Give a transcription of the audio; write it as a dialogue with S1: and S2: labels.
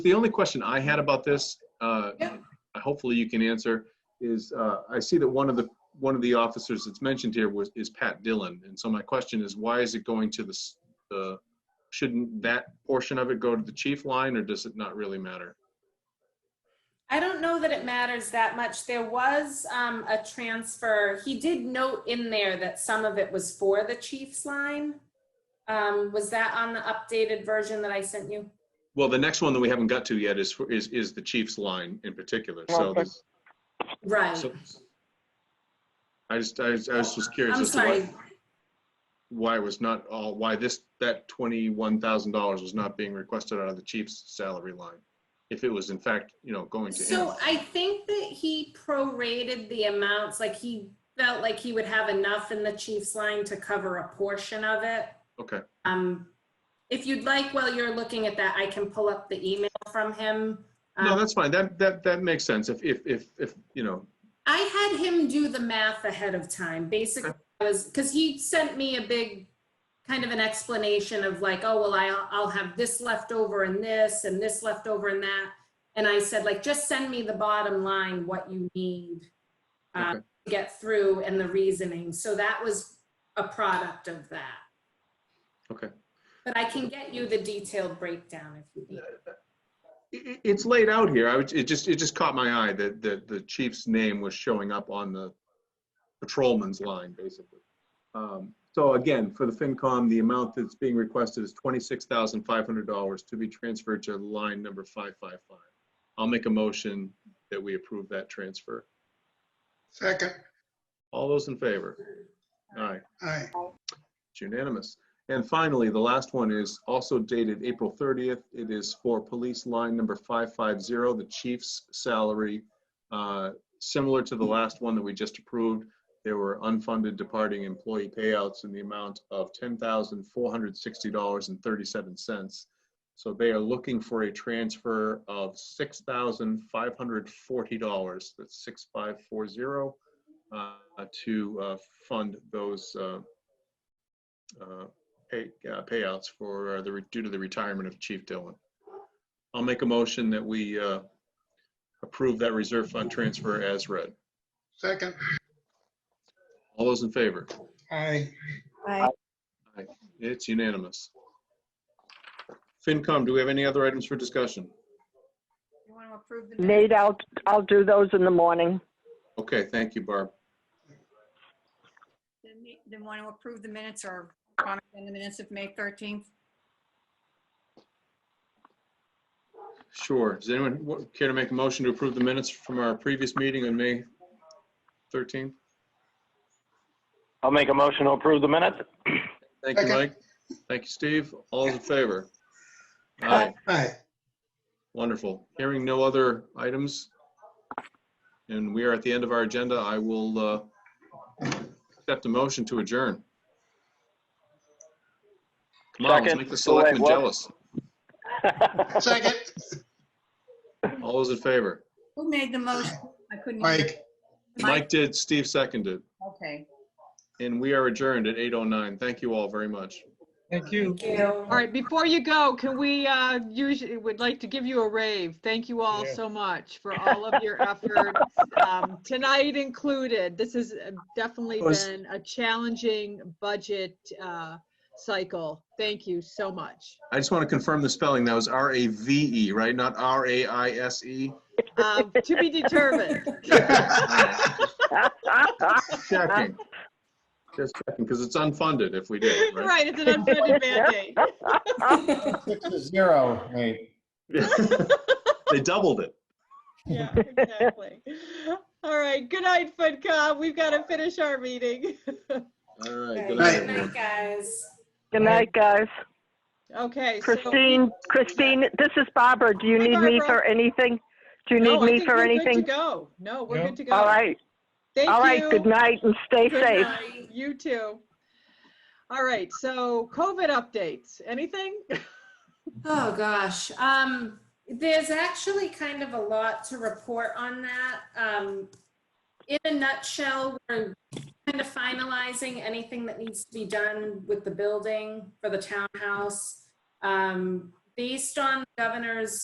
S1: the only question I had about this, uh,
S2: Yeah.
S1: hopefully you can answer, is uh, I see that one of the, one of the officers that's mentioned here was, is Pat Dillon. And so my question is, why is it going to the s- the, shouldn't that portion of it go to the chief line or does it not really matter?
S2: I don't know that it matters that much. There was um, a transfer. He did note in there that some of it was for the Chiefs line. Um, was that on the updated version that I sent you?
S1: Well, the next one that we haven't got to yet is, for- is, is the chief's line in particular. So,
S3: Okay.
S1: there's-
S2: Right.
S1: so- I just, I was I was just curious.
S2: I'm
S1: as to why-
S2: sorry.
S1: Why was not all, why this, that $21,000 was not being requested out of the chief's salary line? If it was in fact, you know, going to him.
S2: So I think that he prorated the amounts, like he felt like he would have enough in the Chiefs line to cover a portion of it.
S1: Okay,
S2: Um, if you'd like, while you're looking at that, I can pull up the email from him.
S1: no,
S2: Um,
S1: that's fine. That, that, that makes sense. If, if, if, if, you know,
S2: I had him do the math ahead of time. Basically, I was because he sent me a big kind of an explanation of like, oh well, I'll I'll have this left over and this and this left over and that. And I said like, just send me the bottom line, what you need um,
S1: Okay.
S2: to get through, and the reasoning. So that was a product of that.
S1: Okay.
S2: But I can get you the detailed breakdown if you need.
S1: i- i- it's laid out here. I would, it just, it just caught my eye that, that the chief's name was showing up on the patrolman's line, basically. Um, So again, for the FinCom, the amount that's being requested is $26,500 to be transferred to line number 555. I'll make a motion that we approve that transfer.
S3: Second,
S1: All those in favor? Aye.
S3: aye,
S1: It's unanimous. And finally, the last one is also dated April 30th. It is for police line number 550, the chief's salary. Uh, Similar to the last one that we just approved, there were unfunded departing employee payouts in the amount of $10,460.37. So they are looking for a transfer of $6,540, that's 6540, uh, to uh, fund those uh, uh, pay, uh, payouts for uh, the, re- due to the retirement of Chief Dillon. I'll make a motion that we uh, approve that reserve fund transfer as read.
S3: second,
S1: All those in favor?
S3: aye,
S1: It's unanimous. FinCom, do we have any other items for discussion?
S2: You want to approve the minutes?
S4: Nate, I'll, I'll do those in the morning.
S1: Okay, thank you, Barb.
S5: Then we- Then want to approve the minutes or comment on the minutes of May 13th?
S1: Sure. Does anyone wa- care to make a motion to approve the minutes from our previous meeting on May 13th?
S6: I'll make a motion to approve the minutes.
S1: Thank you,
S3: Second.
S1: Mike. Thank you, Steve. All those in favor? Aye.
S3: aye.
S1: Wonderful. Hearing no other items, and we are at the end of our agenda, I will uh, accept a motion to adjourn. Come on, let's
S6: Second.
S1: make the
S6: Oh, wait,
S1: selectmen
S6: what?
S1: jealous.
S3: Second,
S1: All those in favor?
S5: Who made the motion? I couldn't. hear.
S3: Mike,
S1: Mike did, Steve seconded,
S5: Okay.
S1: and we are adjourned at 8:09. Thank you all very much.
S7: Thank you.
S2: Thank you.
S8: All right, before you go, can we, uh, usually, would like to give you a rave. Thank you all
S3: Yeah.
S8: so much for all of your efforts, um, tonight included. This has uh, definitely
S1: Was-
S8: been a challenging budget, uh, cycle. Thank you so much.
S1: I just want to confirm the spelling. That was R-A-V-E, E, right? Not R-A-I-S-E?
S8: Uh, to be determined.
S1: Checking. Just checking, because it's unfunded if we did, right?
S8: Right, it's an unfunded mandate.
S9: Six to zero, Nate.
S1: They doubled it.
S8: Yeah, exactly. All right, good night, FinCom. We've got to finish our meeting.
S1: All right,
S2: Good
S1: good night,
S3: Right.
S1: everyone.
S2: night, guys.
S4: Good night, guys.
S8: Okay. so-
S4: Christine, Christine, this is Barbara. Do you
S8: Hey,
S4: need me
S8: Barbara.
S4: for anything? Do you
S8: No,
S4: need
S8: I
S4: me
S8: think
S4: for
S8: we're good to
S4: anything?
S8: Go. No, we're
S7: No.
S8: good to go.
S4: All right,
S8: Thank
S4: all right.
S8: you.
S4: Good night and stay
S8: Good
S4: safe.
S8: night. You too. All right, so COVID updates, anything?
S2: Oh, gosh. Um, there's actually kind of a lot to report on that. Um, in a nutshell, we're kind of finalizing anything that needs to be done with the building for the townhouse. Um, based on the governor's